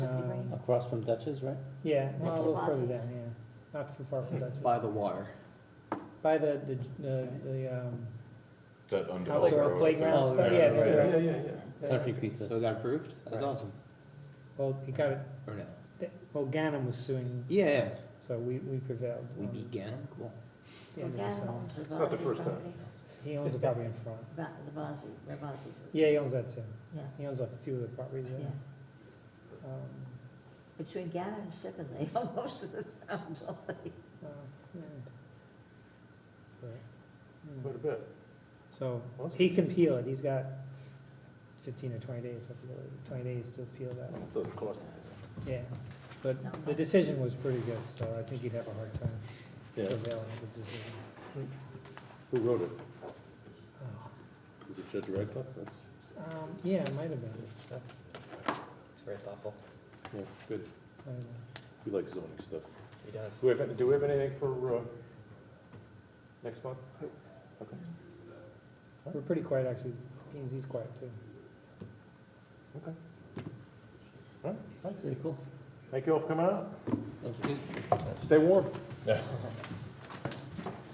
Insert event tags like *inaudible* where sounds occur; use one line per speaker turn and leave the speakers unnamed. across from Dutch's, right?
Yeah,
Next
a
to
little further
Bosse's.
down, yeah. Not too far from Dutchess.
by the water.
By the, the, the, the, um,
That undeveloped
outdoor
road.
playground
Oh,
stuff,
right,
yeah,
right,
the-
right.
the-
yeah,
the-
Country Pizza.
So it got approved? That's
Right.
awesome.
Well, he got it,
Or no?
well, Ganem was suing,
Yeah, yeah.
so we, we prevailed. Um,
We
on
beat Ganon, cool.
Oh,
the end of the settlement.
It's
not the first time.
He owns the property in front.
The Bosse's, where Bosse's is.
Yeah, he owns that too.
Yeah,
He owns a few of the properties,
yeah.
yeah. Um,
Between Gannon and Sippin, they *laughs* own most of the town, don't they?
uh, yeah. Right. Mm.
Quite a bit.
So,
Awesome.
he can appeal it, he's got fifteen or twenty days, I forget, twenty days to appeal that,
Doesn't cost anything.
yeah. But
No.
the decision was pretty good, so I think you'd have a hard time
Yeah.
prevailing with the decision.
Who wrote it?
Oh,
Uh, Was it Judge Radcliffe? That's,
Um, yeah, it might have been, uh,
It's very thoughtful.
yeah, good.
I don't know.
We like zoning stuff.
He does.
Do we have, do we have anything for, uh, next month?
we're pretty quiet, actually, P and Z's quiet too.
Pretty cool.
Thank you all for coming out.
That's good.
Stay warm.